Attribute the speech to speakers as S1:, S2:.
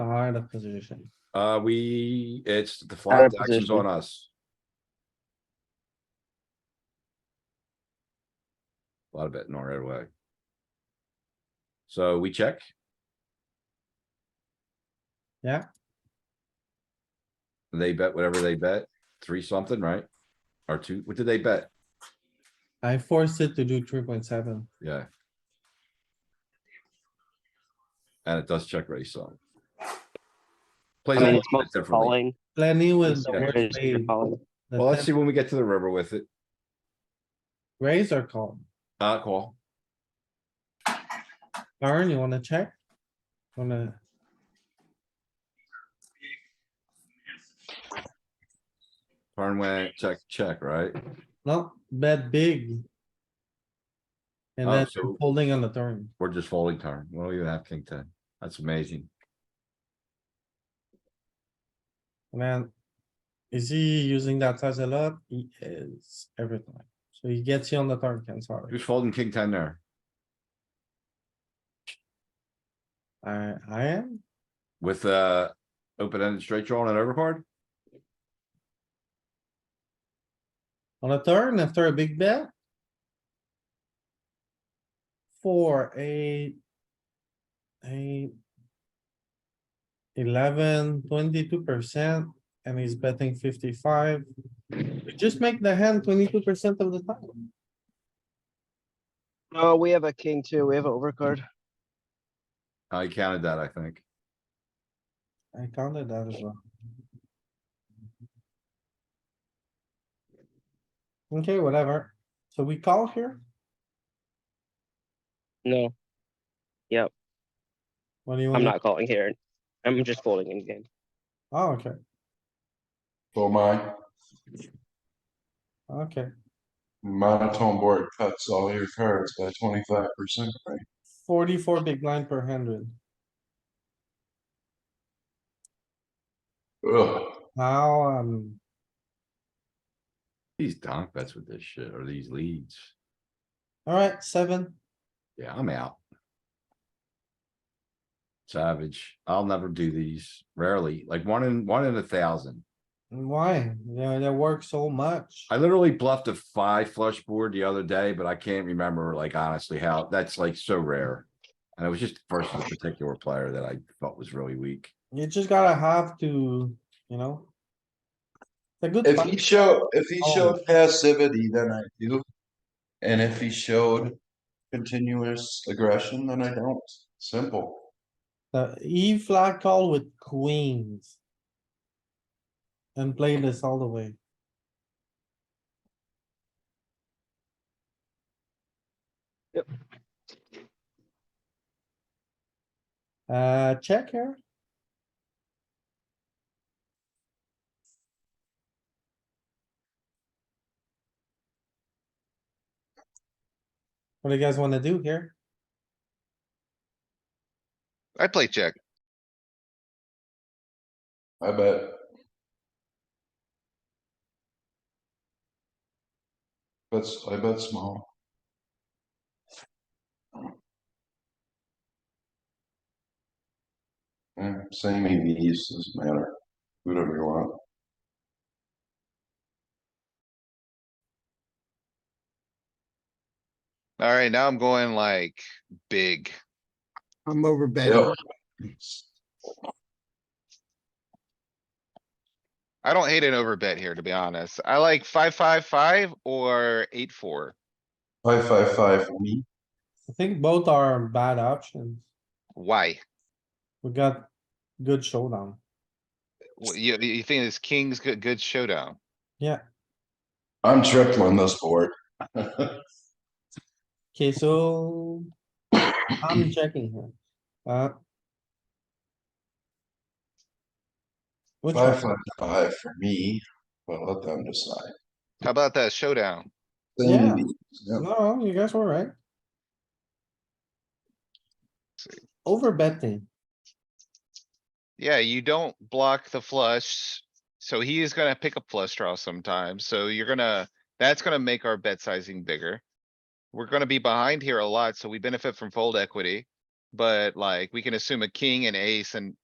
S1: out of position.
S2: Uh, we, it's the
S3: Out
S2: flop
S3: of
S2: action's on
S3: position.
S2: us. A lot of betting our own way. So we check.
S1: Yeah.
S2: They bet whatever they bet, three something, right? Or two, what did they bet?
S1: I forced it to do three point seven.
S2: Yeah. And it does check raise some.
S3: I
S2: Plays a
S3: mean,
S2: little
S3: it's
S2: bit
S3: mostly
S2: differently.
S3: calling.
S1: Plenty with
S3: It's
S1: E the
S2: Yeah.
S1: worst
S3: very
S1: spade,
S3: calling.
S1: the
S2: Well, let's see
S1: ten-
S2: when we get to the river with it.
S1: Raise or call?
S2: Uh, call.
S1: Darn, you wanna check? Wanna,
S2: Turn went, check, check, right?
S1: no, bet big. And
S2: Oh,
S1: then
S2: so-
S1: holding on the turn.
S2: We're just folding turn. We don't even have king ten. That's amazing.
S1: Man, is he using that size a lot? He is every time. So he gets you on the turn, Ken, sorry.
S2: Who's folding king ten there?
S1: I, I am,
S2: With, uh, open-ended straight draw and an overcard?
S1: on a turn after a big bet. Four, eight. Eight. Eleven, twenty-two percent, and he's betting fifty-five. We Just make the hand twenty-two percent of the time.
S3: No, Oh, we have a king too. We have an overcard.
S2: I counted that, I think.
S1: I counted that as well. Okay, whatever. So we call here.
S4: No,
S1: What do you
S4: I'm
S1: want?
S4: not calling here. I'm just folding in game.
S1: Oh, okay,
S5: So my
S1: okay.
S5: monotone board cuts all your cards by twenty-five percent, right?
S1: Forty-four big blind per hundred.
S5: Ugh,
S1: Now, um,
S2: These donk bets with this shit or these leads.
S1: alright, seven.
S2: Yeah, I'm out. Savage. I'll never do these. Rarely, like one in, one in a thousand.
S1: Why? Yeah, they work so much.
S2: I literally bluffed a five flush board the other day, but I can't remember like honestly how, that's like so rare. And it was just versus a particular player that I thought was really weak.
S1: You just gotta have to, you know. The good.
S5: if
S1: fight.
S5: he showed, if he
S1: Oh.
S5: showed passivity, then I do. And if he showed continuous aggression, then I don't, simple.
S1: The E flat call with queens. And play this all the way.
S4: Yep.
S1: Uh, check here. What do you guys wanna do here?
S6: I play check.
S5: I bet, that's, I bet small, Eh, same EVs, doesn't matter, whatever you want.
S6: Alright, now I'm going like big.
S7: I'm over
S5: Yeah.
S7: betting.
S6: I don't hate an overbet here, to be honest. I like five, five, five or eight, four.
S5: Five, five, five, me,
S1: I think both are bad options.
S6: Why?
S1: We got good showdown.
S6: Wh- You, you think this king's good, good showdown?
S5: I'm tripling this board.
S1: Okay, so I'm checking here. Uh. Which
S5: Five,
S1: one?
S5: five, five for me, but let them decide.
S6: How about that showdown?
S5: Same
S1: Yeah.
S5: EVs, yeah.
S1: No, you guys were right. Over betting.
S6: Yeah, you don't block the flush, so he is gonna pick a flush draw sometimes, so you're gonna, that's gonna make our bet sizing bigger. We're gonna be behind here a lot, so we benefit from fold equity. But like, we can assume a king and ace and